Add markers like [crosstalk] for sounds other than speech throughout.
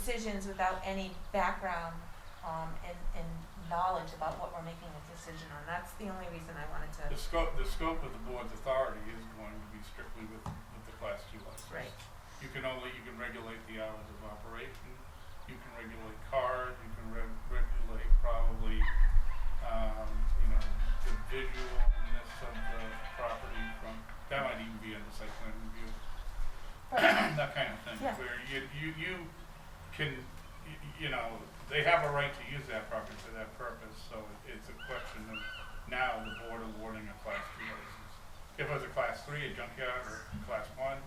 decisions without any background, um, and, and knowledge about what we're making a decision on. That's the only reason I wanted to. The scope, the scope of the board's authority is going to be strictly with, with the class two license. Right. You can only, you can regulate the hours of operation, you can regulate cars, you can reg- regulate probably, um, you know, the visualness of the property from, that might even be in the site plan review. [coughs] That kind of thing, Yeah. where you, you, you can, y- y- you know, they have a right to use that property for that purpose, so it's a question of now the board awarding a class two license. If it was a class three, a junkyard, or a class one,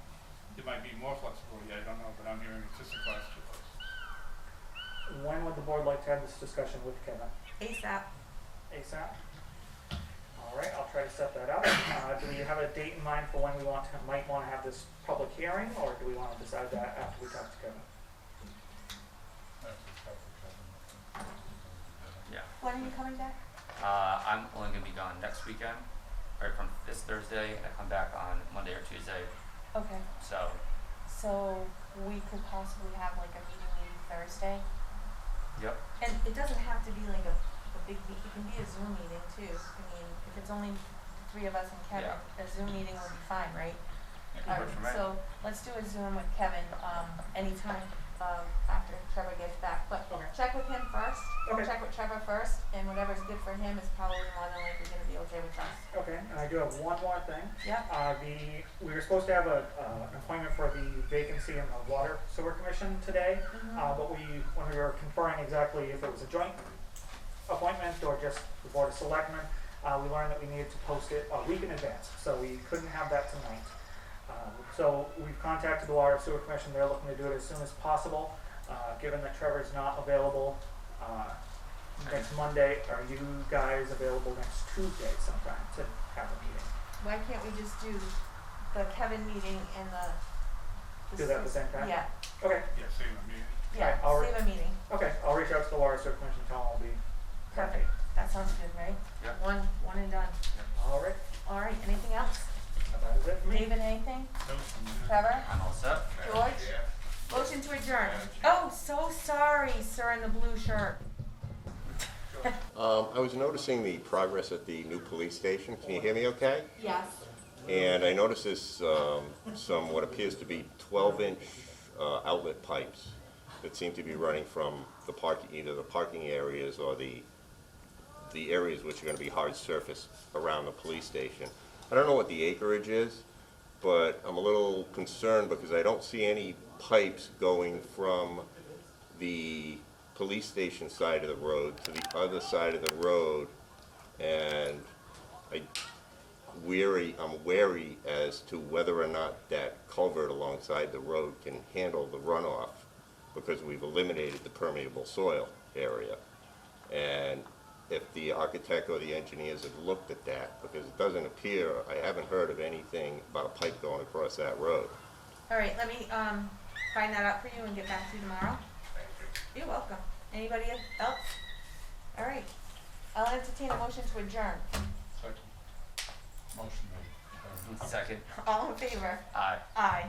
it might be more flexibility, I don't know, but I'm hearing it's just a class two license. When would the board like to have this discussion with Kevin? ASAP, ASAP? All right, I'll try to set that up. Uh, do we have a date in mind for when we want to, might want to have this public hearing, or do we want to decide that after we talk to Kevin? Yeah. when are you coming back? Uh, I'm only gonna be gone next weekend, right from this Thursday, and I come back on Monday or Tuesday, Okay, so, so we could possibly have like a meeting maybe Thursday? yep. And it doesn't have to be like a, a big meet, it can be a Zoom meeting too. I mean, if it's only the three of us and Kevin, a Zoom meeting would be fine, right? it All works for right, me. so let's do a Zoom with Kevin, um, anytime, um, after Trevor gets back, but Okay. check with him first. Okay. Check with Trevor first, and whatever's good for him is probably more than likely gonna be okay with us. Okay, and I do have one more thing. Yep, Uh, the, we were supposed to have a, uh, an appointment for the vacancy in the Water Sewer Commission today, Mm-hmm. uh, but we, when we were conferring exactly if it was a joint appointment or just the Board of Selectmen, uh, we learned that we needed to post it a week in advance, so we couldn't have that tonight. Uh, So we've contacted the Water Sewer Commission, they're looking to do it as soon as possible, uh, given that Trevor's not available, uh, next Monday, are you guys available next Tuesday sometime to have a meeting? why can't we just do the Kevin meeting and the. Do that at the same time? Yeah, Okay, Yeah, same, I mean, yeah, Alright, I'll re- save a meeting, okay, I'll reach out to the water sewer commission, tell them I'll be. perfect, that sounds good, right? Yeah. One, one and done, All right, alright, anything else? that is it for me. David, anything? so, I mean, Trevor? I'm all set. George? é, Motion to adjourn. Oh, so sorry, sir in the blue shirt. Um, I was noticing the progress at the new police station. Can you hear me okay? Yes. And I noticed this, um, some what appears to be twelve-inch, uh, outlet pipes that seem to be running from the park, either the parking areas or the, the areas which are gonna be hard surface around the police station. I don't know what the acreage is, but I'm a little concerned because I don't see any pipes going from the police station side of the road to the other side of the road. And I weary, I'm wary as to whether or not that culvert alongside the road can handle the runoff because we've eliminated the permeable soil area. And if the architect or the engineers have looked at that, because it doesn't appear, I haven't heard of anything about a pipe going across that road. All right, let me, um, find that out for you and get back to you tomorrow. You're welcome. Anybody else? All right. I'll entertain a motion to adjourn. [laughs] second. Motion made. Second, uh, All in favor? aye. Aye.